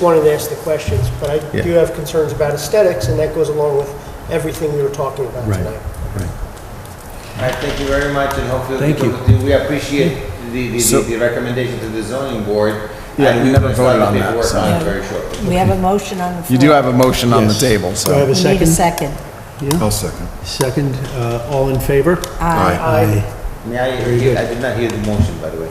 wanted to ask the questions, but I Yeah. do have concerns about aesthetics, and that goes along with everything we were talking about Right. tonight. All right, thank you very much, and hopefully. Thank you. We appreciate the, the, So- the recommendation to the zoning board. Yeah, and we we're never gonna start voted the on that, paperwork so- on it Very shortly. We have a motion on the floor. You do have a motion on the table, Do I have so. a We need a second? second. I'll second. Second, uh, all in favor? Aye. Aye. May I, good. hear- I did not hear the motion, by the way.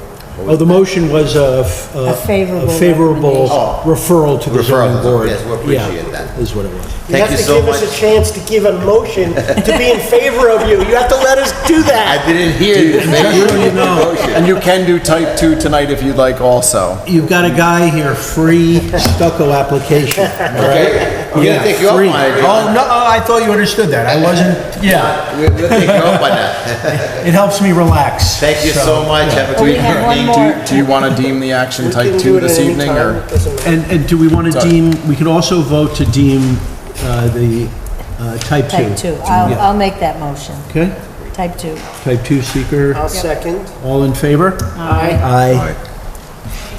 Oh, the motion was a f- A favorable Uh, a favorable recommendation. referral to the zoning Referral, board. yes, we Yeah, appreciate that. Is what it was. You Thank have you to so give us much. a chance to give a motion to be in favor of you. You have to let us do I that. didn't hear you. Maybe you know. motion. And you can do type two tonight if you'd like also. You've got a guy here, free stucco application, all right? Okay, we're gonna Yeah, take you up on free. it. Oh, no, oh, I thought you understood that. I wasn't, yeah, We'll we'll take you up on that. it helps me relax. Thank you so much, have a Oh, we good evening. have one Do more. you, do you want to deem the action We type can two do it at this any evening, time. or? It doesn't matter. And, and do we want to Sorry. deem, we can also vote to deem uh, the uh, type 2. Type 2. I'll, Yeah. I'll make that motion. Okay, Type 2. type 2 seeker, I'll second. all in favor? Aye. Aye.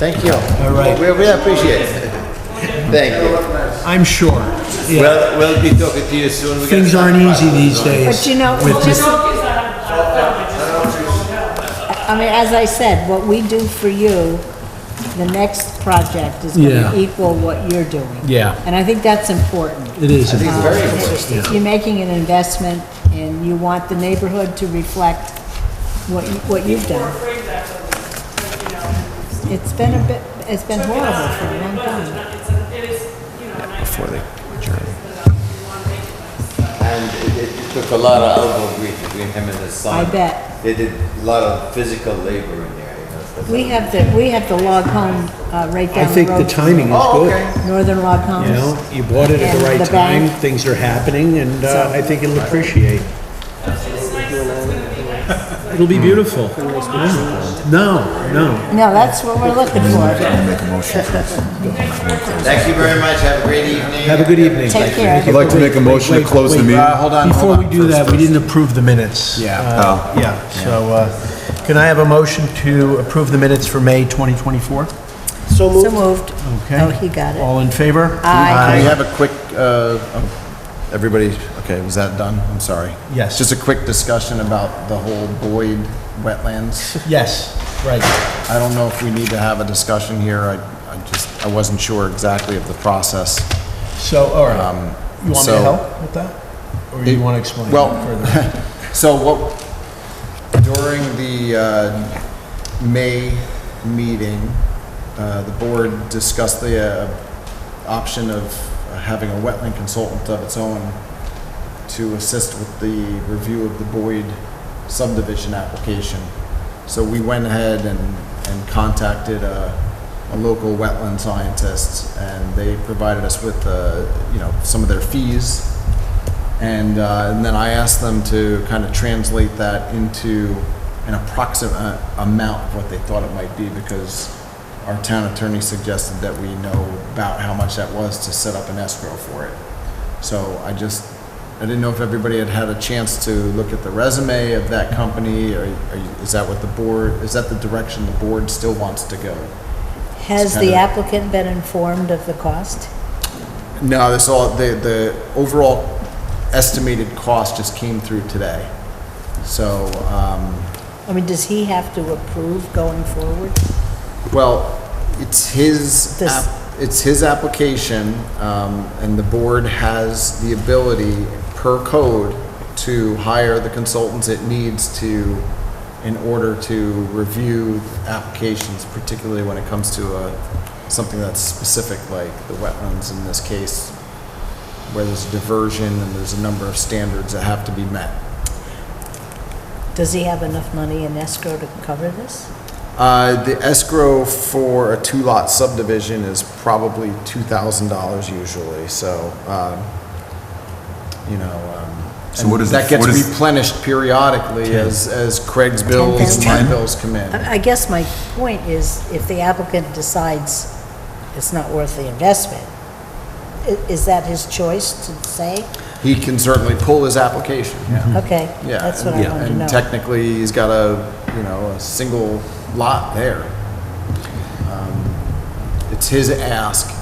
Thank you. All right. We, we appreciate it. Thank you. I'm sure. Yeah. Well, we'll be talking to you soon. We're gonna Things start aren't the easy process these on- days. But you know, with this- just- I mean, as I said, what we do for you, the next project is Yeah. going to equal what you're doing. Yeah. And I think that's important. It is. important. Very important. You're making an investment, and you want the neighborhood to reflect what, you- what you've done. It's been a bit, it's been horrible for a long time. Before they adjourn. And it, it took a lot of elbow grease between him and his son. I bet. They did a lot of physical labor in there, you know. so- We have the, we have the log home uh, right I down the think road. the timing is Oh, good. okay. Northern log You homes. know, you bought it at And the right the time, bank. things are happening, and uh, I think it'll appreciate. It'll be beautiful. No, no. No, that's what we're looking for. Thank you very much. Have a great evening. Have a good evening. Take care. I'd like to make a motion to Wait, close the wait, meeting. Uh, hold on, Before hold we on. do First, that, we first. didn't approve the minutes. Yeah. Oh. Uh, Yeah, so uh, can I have a motion to approve the minutes for May 2024? So So moved. moved. Okay. Oh, he got it. All in favor? Aye. We have a quick, uh, um, everybody, okay, was that done? I'm sorry. Yes. Just a quick discussion about the whole Boyd wetlands. Yes, right. I don't know if we need to have a discussion here. I, I just, I wasn't sure exactly of the process. Um, So, all right. You want me to so- help with that? Or you want to explain Well, further? So what, during the uh, May meeting, uh, the board discussed the uh, option of having a wetland consultant of its own to assist with the review of the Boyd subdivision application. So we went ahead and, and contacted a, a local wetland scientist, and they provided us with, uh, you know, some of their fees. And, uh, and then I asked them to kind of translate that into an approximate uh, amount of what they thought it might be, because our town attorney suggested that we know about how much that was to set up an escrow for it. So I just, I didn't know if everybody had had a chance to look at the resume of that company, or are you- is that what the board, is that the direction the board still wants to go? Has kind the of- applicant been informed of the cost? No, this all, the, the overall estimated cost just came through today. So, um, I mean, does he have to approve going forward? well, it's his, This- app- it's his application, um, and the board has the ability, per code, to hire the consultants it needs to, in order to review applications, particularly when it comes to a, something that's specific, like the wetlands in this case, where there's diversion and there's a number of standards that have to be met. Does he have enough money in escrow to cover this? Uh, The escrow for a two-lot subdivision is probably $2,000 usually, so, um, you know, um, So what and is that the- what gets is- replenished periodically as as Craig's bills and my bills come in. I I guess my point is, if the applicant decides it's not worth the investment, i- is that his choice to say? He can certainly pull his application, yeah. Okay, Mm-hmm. Yeah, that's what and- I wanted to know. And technically, he's got a, you know, a single lot there. Um, It's his ask,